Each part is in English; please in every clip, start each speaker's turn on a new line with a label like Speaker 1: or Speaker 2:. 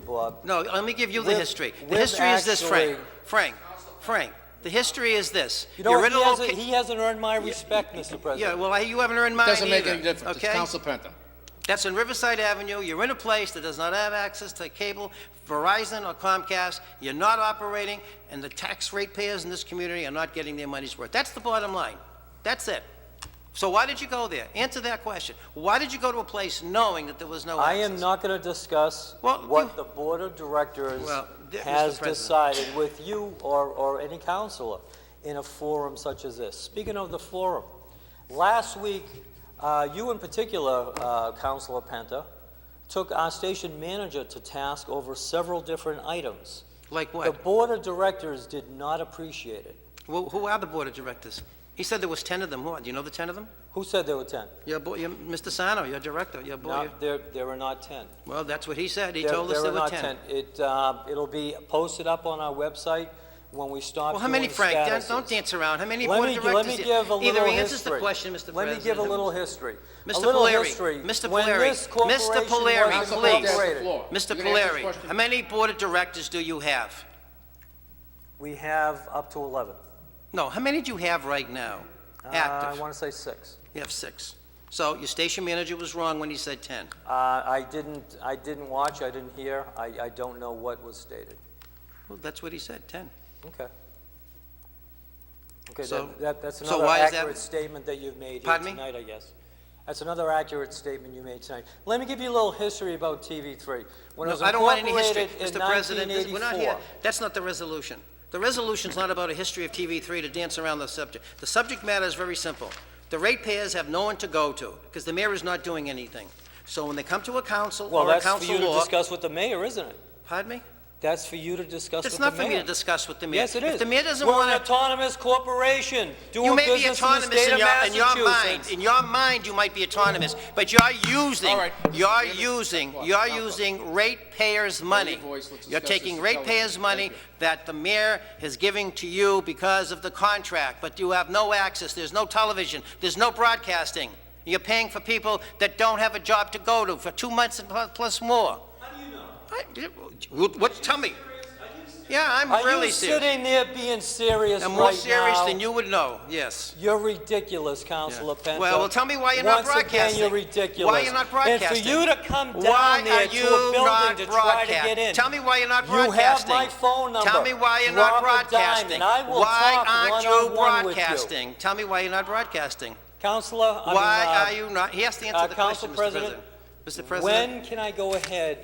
Speaker 1: people up.
Speaker 2: No, let me give you the
Speaker 1: With-
Speaker 2: history. The
Speaker 1: with
Speaker 2: history is this, Frank.
Speaker 1: actually-
Speaker 2: Frank, Frank, the history is this.
Speaker 1: You know
Speaker 2: Your
Speaker 1: what? He
Speaker 2: original
Speaker 1: hasn't,
Speaker 2: ca-
Speaker 1: he hasn't earned my respect, Mr.
Speaker 2: Yeah,
Speaker 1: President.
Speaker 2: well, I- you haven't earned mine
Speaker 3: Doesn't make
Speaker 2: either,
Speaker 3: any difference. It's
Speaker 2: okay?
Speaker 3: Council Penta.
Speaker 2: That's in Riverside Avenue. You're in a place that does not have access to cable, Verizon or Comcast. You're not operating, and the tax ratepayers in this community are not getting their money's worth. That's the bottom line. That's it. So why did you go there? Answer that question. Why did you go to a place knowing that there was no
Speaker 1: I
Speaker 2: access?
Speaker 1: am not going to discuss
Speaker 2: Well,
Speaker 1: what
Speaker 2: you-
Speaker 1: the Board of Directors
Speaker 2: Well, th- Mr.
Speaker 1: has
Speaker 2: President.
Speaker 1: decided with you or, or any counselor in a forum such as this. Speaking of the forum, last week, uh, you in particular, uh, Counselor Penta, took our station manager to task over several different items.
Speaker 2: Like
Speaker 1: The
Speaker 2: what?
Speaker 1: Board of Directors did not appreciate it.
Speaker 2: Wh- Who are the board of directors? He said there was 10 of them. Who are, do you know the 10 of them?
Speaker 1: Who said there were 10?
Speaker 2: Your boy, your, Mr. Sano, your director, your boy.
Speaker 1: No, there, there were not 10.
Speaker 2: Well, that's what he said. He
Speaker 1: There-
Speaker 2: told us there were
Speaker 1: not
Speaker 2: 10.
Speaker 1: It, uh, it'll be posted up on our website when we stop
Speaker 2: Well, how many,
Speaker 1: doing
Speaker 2: Frank? Dan-
Speaker 1: statuses.
Speaker 2: Don't dance around. How many
Speaker 1: Let
Speaker 2: board
Speaker 1: me-
Speaker 2: of
Speaker 1: Let me
Speaker 2: directors-
Speaker 1: give a
Speaker 2: Either
Speaker 1: little
Speaker 2: he answers the
Speaker 1: history.
Speaker 2: question, Mr. President.
Speaker 1: Let me give a little history. A
Speaker 2: Mr.
Speaker 1: little
Speaker 2: Polari,
Speaker 1: history.
Speaker 2: Mr.
Speaker 1: When
Speaker 2: Polari,
Speaker 1: this
Speaker 2: Mr.
Speaker 1: corporation
Speaker 2: Polari,
Speaker 1: was
Speaker 2: Council Please.
Speaker 3: Council Penta has the
Speaker 1: incorporated,
Speaker 3: floor.
Speaker 2: Mr.
Speaker 3: You can answer this
Speaker 2: Polari,
Speaker 3: question.
Speaker 2: how many board of directors do you have?
Speaker 1: We have up to 11.
Speaker 2: No, how many do you have right now?
Speaker 1: Uh, I
Speaker 2: Active?
Speaker 1: want to say six.
Speaker 2: You have six. So your station manager was wrong when he said 10.
Speaker 1: Uh, I didn't, I didn't watch, I didn't hear, I, I don't know what was stated.
Speaker 2: Well, that's what he said, 10.
Speaker 1: Okay. Okay,
Speaker 2: So-
Speaker 1: that- that, that's
Speaker 2: so
Speaker 1: another
Speaker 2: why is that-
Speaker 1: accurate statement that you've made here
Speaker 2: Pardon me?
Speaker 1: tonight, I guess. That's another accurate statement you made tonight. Let me give you a little history about TV3. When it
Speaker 2: No,
Speaker 1: was
Speaker 2: I don't want any history,
Speaker 1: incorporated in
Speaker 2: Mr. President. this- We're not here.
Speaker 1: 1984.
Speaker 2: That's not the resolution. The resolution's not about a history of TV3 to dance around the subject. The subject matter is very simple. The ratepayers have no one to go to because the mayor is not doing anything. So when they come to a council
Speaker 1: Well,
Speaker 2: or a
Speaker 1: that's for you
Speaker 2: council
Speaker 1: to
Speaker 2: law,
Speaker 1: discuss with the mayor, isn't it?
Speaker 2: pardon me?
Speaker 1: That's for you to discuss with
Speaker 2: It's
Speaker 1: the mayor.
Speaker 2: not for me to discuss with the mayor.
Speaker 1: Yes, it is.
Speaker 2: If the mayor doesn't
Speaker 1: We're an
Speaker 2: want to,
Speaker 1: autonomous corporation, doing
Speaker 2: you may be
Speaker 1: business in the
Speaker 2: autonomous
Speaker 1: state
Speaker 2: in
Speaker 1: of
Speaker 2: your, in your mind.
Speaker 1: Massachusetts.
Speaker 2: In your mind, you might be autonomous, but you're using,
Speaker 3: All right.
Speaker 2: you're
Speaker 3: Stand up.
Speaker 2: using,
Speaker 3: Stop.
Speaker 2: you're
Speaker 3: Stop.
Speaker 2: using ratepayers' money.
Speaker 3: your voice. Let's
Speaker 2: You're
Speaker 3: discuss this
Speaker 2: taking
Speaker 3: intelligently.
Speaker 2: ratepayers' money
Speaker 3: Thank you.
Speaker 2: that the mayor is giving to you because of the contract, but you have no access, there's no television, there's no broadcasting. You're paying for people that don't have a job to go to for two months and pl- plus more. How do you know? What, tell me. Yeah, I'm
Speaker 1: Are
Speaker 2: really
Speaker 1: you
Speaker 2: serious.
Speaker 1: sitting there being serious right
Speaker 2: I'm
Speaker 1: now?
Speaker 2: more serious than you would know, yes.
Speaker 1: You're ridiculous, Councilor
Speaker 2: Yeah.
Speaker 1: Penta.
Speaker 2: Well, well, tell me why you're not broadcasting.
Speaker 1: Once again, you're ridiculous.
Speaker 2: Why you're not broadcasting?
Speaker 1: And for you to come
Speaker 2: Why
Speaker 1: down there
Speaker 2: are
Speaker 1: to
Speaker 2: you
Speaker 1: a
Speaker 2: not
Speaker 1: building to try to
Speaker 2: broadcast-
Speaker 1: get in.
Speaker 2: Tell me why you're not
Speaker 1: You have
Speaker 2: broadcasting.
Speaker 1: my phone number.
Speaker 2: Tell me why you're not
Speaker 1: Robert
Speaker 2: broadcasting.
Speaker 1: Diamond. I will
Speaker 2: Why
Speaker 1: talk
Speaker 2: aren't you
Speaker 1: one-on-one with you.
Speaker 2: broadcasting? Tell me why you're not broadcasting.
Speaker 1: Councilor, I mean,
Speaker 2: Why
Speaker 1: uh,
Speaker 2: are you not, he has to
Speaker 1: uh,
Speaker 2: answer the
Speaker 1: Council
Speaker 2: question, Mr.
Speaker 1: President,
Speaker 2: President. Mr. President,
Speaker 1: When can I go ahead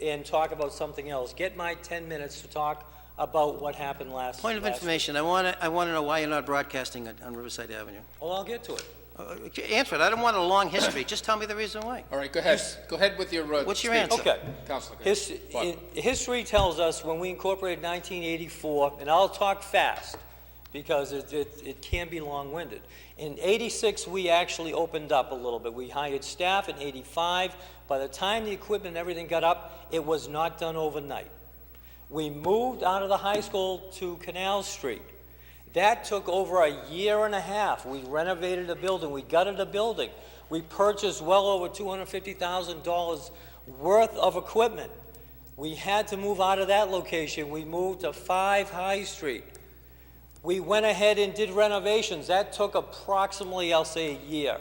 Speaker 1: and talk about something else? Get my 10 minutes to talk about what happened last.
Speaker 2: point of
Speaker 1: last-
Speaker 2: information, I want to, I want to know why you're not broadcasting on- on Riverside Avenue.
Speaker 1: Well, I'll get to it.
Speaker 2: Uh, Answer it, I don't want a long history, just tell me the reason why.
Speaker 3: All right, go ahead. Go ahead with your uh,
Speaker 2: What's your
Speaker 3: speech.
Speaker 2: answer?
Speaker 1: Okay.
Speaker 3: Counselor, go
Speaker 1: His-
Speaker 3: ahead. What?
Speaker 1: i- History tells us when we incorporated 1984, and I'll talk fast because it, it, it can be long-winded. In 86, we actually opened up a little bit. We hired staff in 85. By the time the equipment and everything got up, it was not done overnight. We moved out of the high school to Canal Street. That took over a year and a half. We renovated a building, we gutted a building, we purchased well over $250,000 worth of equipment. We had to move out of that location, we moved to 5 High Street. We went ahead and did renovations, that took approximately, I'll say, a year.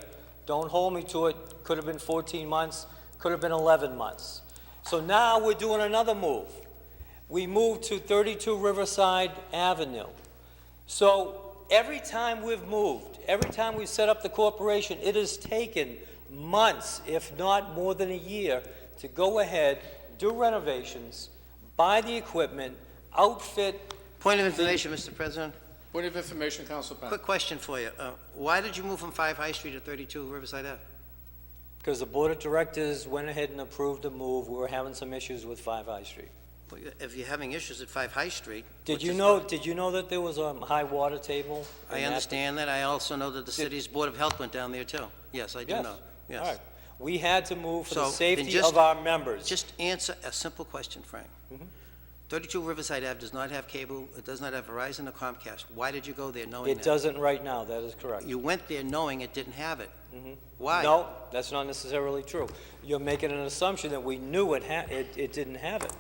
Speaker 1: Don't hold me to it, could have been 14 months, could have been 11 months. So now we're doing another move. We moved to 32 Riverside Avenue. So every time we've moved, every time we've set up the corporation, it has taken months, if not more than a year, to go ahead, do renovations, buy the equipment, outfit.
Speaker 2: Point of information, Mr. President.
Speaker 3: Point of information, Council Penta.
Speaker 2: Quick question for you. Uh, Why did you move from 5 High Street to 32 Riverside Ave?
Speaker 1: Because the board of directors went ahead and approved a move. We were having some issues with Five High Street.
Speaker 2: Well, If you're having issues at 5 High Street...
Speaker 1: Did
Speaker 2: which
Speaker 1: you
Speaker 2: is-
Speaker 1: know, did you know that there was a high water table?
Speaker 2: I
Speaker 1: in that
Speaker 2: understand that. I also know that the city's Board of Health went down there, too. Yes, I do
Speaker 1: Yes.
Speaker 2: know. Yes.
Speaker 1: All right. We had to move for the
Speaker 2: So, then
Speaker 1: safety
Speaker 2: just-
Speaker 1: of our members.
Speaker 2: Just answer a simple question, Frank.
Speaker 1: Mm-hmm.
Speaker 2: 32 Riverside Ave does not have cable, it does not have Verizon or Comcast. Why did you go there knowing that?
Speaker 1: It doesn't right now, that is correct.
Speaker 2: You went there knowing it didn't have it.
Speaker 1: Mm-hmm.
Speaker 2: Why?
Speaker 1: No, that's not necessarily true. You're making an assumption that we knew it ha, it, it didn't have it.